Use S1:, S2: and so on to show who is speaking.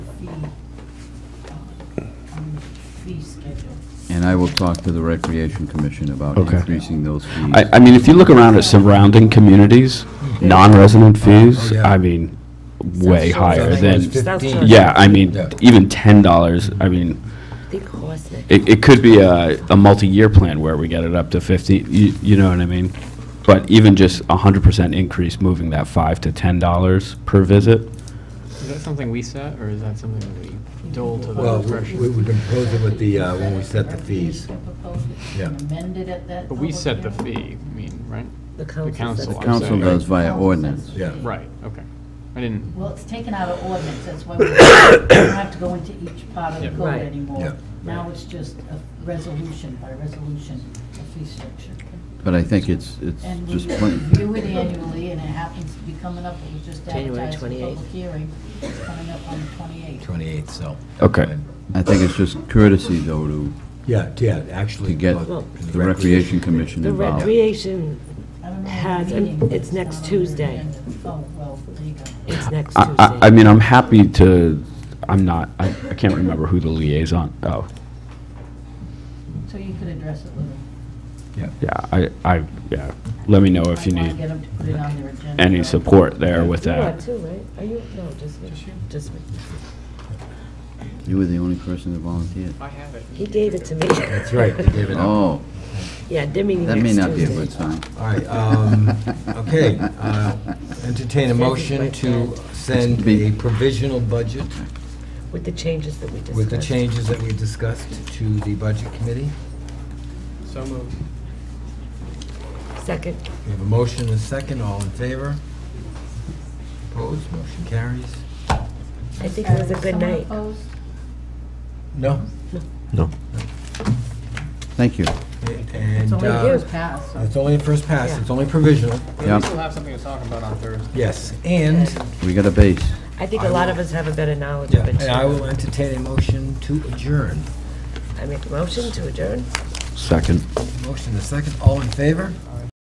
S1: um, fee schedule.
S2: And I will talk to the Recreation Commission about
S3: Okay.
S2: increasing those fees.
S3: I, I mean, if you look around at surrounding communities, non-resident fees,
S4: Oh, yeah.
S3: I mean, way higher
S4: South
S3: than,
S4: Shore.
S1: South
S3: yeah, I mean,
S4: Yeah.
S3: even ten dollars, I mean,
S1: They cost it.
S3: it, it could be a, a multi-year plan where we get it up to fifty, you, you know what I mean? But even just a hundred percent increase, moving that five to ten dollars per visit,
S5: Is that something we set, or is that something that we dole to the
S4: Well, we- we-
S5: refreshers?
S4: we've been proposing with the, uh, when we set the fees. Yeah.
S1: Amended at that.
S5: But we
S1: public
S5: set the
S1: hearing.
S5: fee, I mean, right?
S6: The
S5: The council.
S6: council.
S5: I'm
S2: Council
S5: sorry.
S2: does via ordinance.
S4: Yeah.
S5: Right, okay. I didn't,
S1: Well, it's taken out of ordinance, that's why we don't have to go into each part of the
S5: Yeah.
S1: code
S6: Right.
S4: Yeah.
S1: anymore. Now it's just a resolution by resolution, a fee structure.
S2: But I think it's, it's
S1: And we
S2: just plain,
S1: review it annually, and it happens to be coming up, it was just
S6: January
S1: advertised for
S6: 28th.
S1: public hearing, it's coming up on the 28th.
S4: 28th, so.
S3: Okay.
S2: I think it's just courtesy, though, to,
S4: Yeah, yeah, actually.
S2: to get
S4: well,
S2: the Recreation Commission
S6: The
S2: involved.
S6: recreation,
S1: I don't know when the
S6: Has, and
S1: meeting is.
S6: it's next
S1: not on your
S6: Tuesday.
S1: agenda. Oh, well, there you go.
S6: it's next
S3: I, I, I
S6: Tuesday.
S3: mean, I'm happy to, I'm not, I, I can't remember who the liaison, oh,
S1: So you could address it with them.
S4: Yeah.
S3: yeah, I, I, yeah, let me know if you
S1: Might wanna
S3: need
S1: Get 'em to put it on their agenda.
S3: any support there with
S6: You are
S3: that.
S6: too, right? Are you, no, just me, just me.
S2: You were the only person that volunteered.
S5: I have it.
S6: He gave it to me.
S4: That's right, you gave it up.
S2: Oh,
S6: Yeah, they're meeting
S2: that may
S6: next
S2: not be a
S6: Tuesday.
S2: good sign.
S4: All right, um, okay, uh, entertain a motion to send a provisional budget
S6: With the changes that we discussed.
S4: with the changes that we discussed to the Budget Committee.
S5: So moved.
S6: Second.
S4: We have a motion and a second, all in favor? Opposed, motion carries?
S6: I think it was a good
S1: Someone
S6: night.
S1: opposed?
S4: No.
S2: Thank you.
S4: And
S1: It's only
S4: uh,
S1: years past, so.
S4: it's only a first pass, it's only provisional,
S5: But we
S2: Yep.
S5: still have something to talk about on Thursday.
S4: yes. And,
S2: We got a base.
S6: I think a lot of us have a better knowledge
S4: yeah,
S6: of it.
S4: and I
S6: too.
S4: will entertain a motion to adjourn.
S6: I make a motion to adjourn.
S3: Second.
S4: Motion and a second, all in favor?